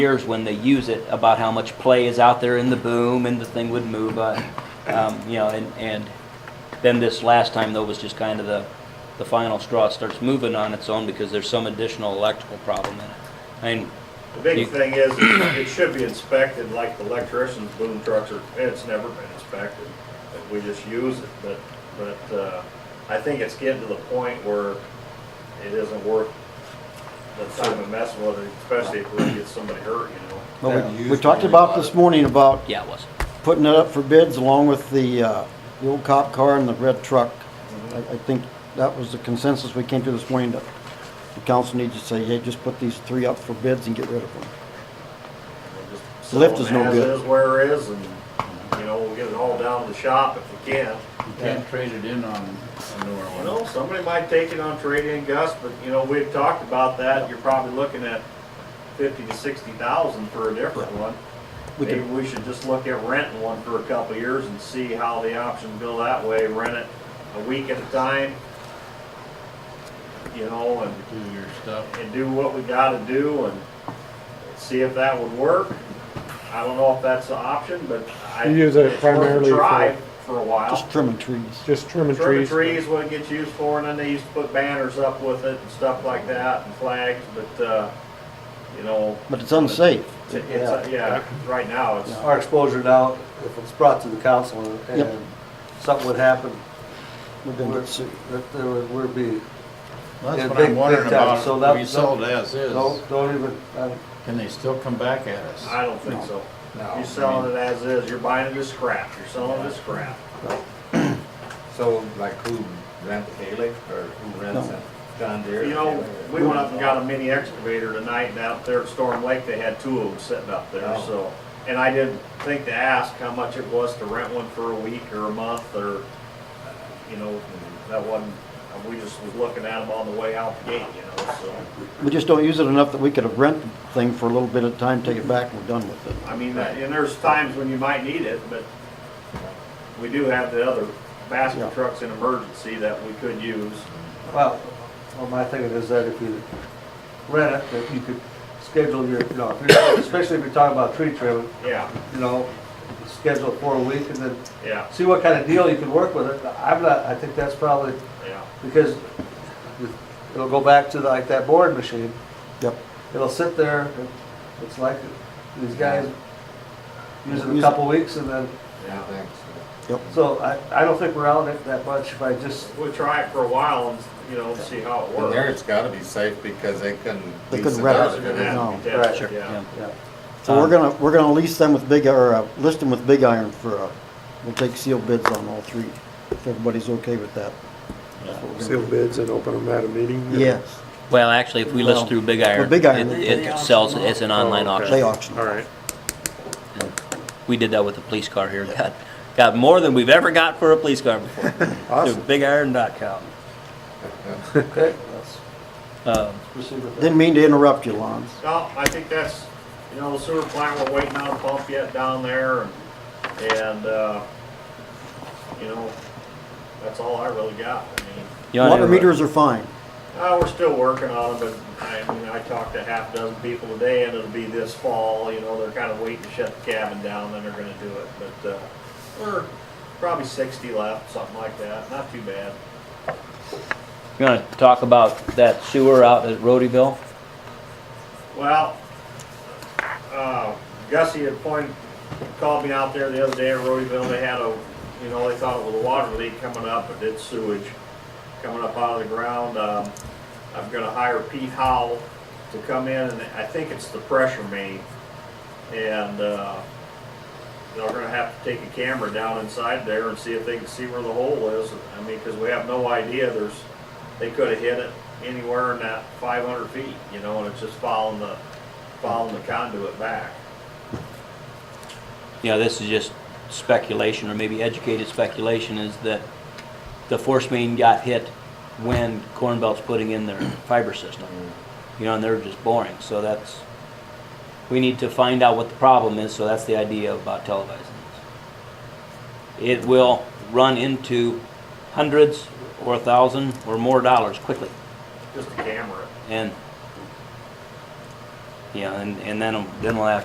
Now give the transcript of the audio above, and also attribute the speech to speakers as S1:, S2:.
S1: years when they use it about how much play is out there in the boom and the thing would move, uh, um, you know, and, and then this last time though was just kind of the, the final straw. It starts moving on its own because there's some additional electrical problem in it. I mean,
S2: The
S1: You-
S2: big thing is, it should be inspected like the electricians' boom trucks are, and it's never been inspected. We just use it, but, but, uh, I think it's getting to the point where it isn't worth the time and mess with it, especially if we get somebody hurt, you know?
S3: Well, we, we talked about this morning about
S1: yeah, it was.
S3: putting it up for bids along with the, uh, the old cop car and the red truck. I, I think that was the consensus we came to this morning, that the council needs to say, hey, just put these three up for bids and get rid of them.
S2: We'll just
S3: Lift is
S2: sell
S3: no
S2: them
S3: good.
S2: As is where it is, and, you know, we'll get it all down to the shop if we can.
S4: You can't trade it in on a newer
S2: You
S4: one.
S2: know, somebody might take it on trade-in, Gus, but, you know, we've talked about that, you're probably looking at fifty to sixty thousand for a different one.
S3: We
S2: Maybe
S3: could,
S2: we should just look at renting one for a couple of years and see how the options go that way, rent it a week at a time, you know, and,
S4: Do your stuff.
S2: and do what we gotta do and see if that would work. I don't know if that's an option, but I.
S5: You use it
S2: it's worth a
S5: primarily for-
S2: try For a while.
S3: just trimming trees.
S5: Just trimming
S2: Trimming
S5: trees.
S2: trees, what it gets used for, and then they used to put banners up with it and stuff like that, and flags, but, uh, you know,
S3: But it's unsafe.
S2: it's, it's- yeah, right now, it's,
S6: Our exposure now, if it's brought to the council and
S3: Yep.
S6: and something would happen,
S3: We're gonna
S6: we're-
S3: get sued.
S6: that there would we'd be,
S4: That's
S6: Yeah,
S4: what
S6: big-
S4: I'm wondering
S6: big time. So
S4: about,
S6: that-
S4: we sold as is,
S6: don't, don't even, uh,
S4: can they still come back at us?
S2: I don't think so. You're selling it as is, you're buying it as scrap, you're selling it as scrap.
S7: So like who rent the Haley or who rents
S3: No.
S7: it? John Deere?
S2: You know, we went up and got a mini excavator tonight, and out there at Storm Lake, they had two of them sitting up there,
S7: Oh.
S2: so. And I didn't think to ask how much it was to rent one for a week or a month, or, uh, you know, that wasn't, we just was looking at them on the way out the gate, you know, so.
S3: We just don't use it enough that we could have rented the thing for a little bit of time, take it back, and we're done with it.
S2: I mean, that- and there's times when you might need it, but we do have the other
S3: Yeah.
S2: basket trucks in emergency that we could use.
S6: well, well, my thinking is that if you rent it, that you could schedule your, you know, if you're- especially if you're talking about tree trimming,
S2: Yeah,
S6: you know, schedule it for a week and then
S2: yeah,
S6: see what kind of deal you can work with it. I'm not, I think that's probably,
S2: yeah.
S6: because it'll go back to like that board machine.
S3: Yep.
S6: It'll sit there, and it's like these guys use
S3: Use
S6: it a
S3: it.
S6: couple weeks and then,
S7: Yeah, thanks.
S6: so I, I don't think we're out it that much if I just,
S2: We'll try it for a while and, you know, see how it
S7: And there
S2: works.
S7: it's gotta be safe because they couldn't.
S3: They
S7: lease
S3: couldn't
S7: it
S3: rent
S7: out.
S3: it.
S2: They're gonna have to be
S6: No. Right.
S2: tested,
S6: Sure.
S2: yeah.
S6: yeah.
S3: So
S5: Uh,
S3: we're gonna, we're gonna lease them with big, or uh, list them with big iron for, uh, we'll take sealed bids on all three, if everybody's okay with that. That's what we're gonna
S5: Seal
S3: do.
S5: bids and open them at a meeting?
S3: Yes,
S1: Well, actually, if we list
S3: No.
S1: through Big Iron.
S3: Well, Big Iron,
S1: it-
S3: they-
S1: It sells, it's an online
S5: Oh, okay.
S1: auction.
S3: they auction.
S5: All right.
S1: We did that with the police car here. Got, got more than we've ever got for a police car before.
S3: Awesome.
S1: BigIron.com.
S6: Okay, let's
S1: Um,
S6: proceed with that.
S3: Didn't mean to interrupt you, Lon.
S2: No, I think that's, you know, the sewer plant, we're waiting on a pump yet down there and, and, uh, you know, that's all I really got. I mean,
S1: you wanna
S3: Water
S1: interrupt?
S3: meters are fine.
S2: Uh, we're still working on them, but I mean, I talked to half dozen people today and it'll be this fall, you know, they're kind of waiting to shut the cabin down, then they're gonna do it, but, uh, we're probably sixty left, something like that, not too bad.
S1: You wanna talk about that sewer out at Rhodeyville?
S2: Well, uh, Gussie had pointed, called me out there the other day in Rhodeyville, they had a, you know, they thought it was a water leak coming up, but it's sewage coming up out of the ground. Um, I'm gonna hire Pete Howell to come in, and I think it's the pressure main. And, uh, they're gonna have to take a camera down inside there and see if they can see where the hole is. I mean, cause we have no idea, there's, they could have hit it anywhere in that five hundred feet, you know, and it's just following the, following the conduit back.
S1: you know, this is just speculation, or maybe educated speculation, is that the force main got hit when Corn Belt's putting in their fiber system. You know, and they're just boring, so that's, we need to find out what the problem is, so that's the idea about televising this. It will run into hundreds or a thousand or more dollars quickly,
S2: just a camera.
S1: and Yeah, and, and then, then we'll have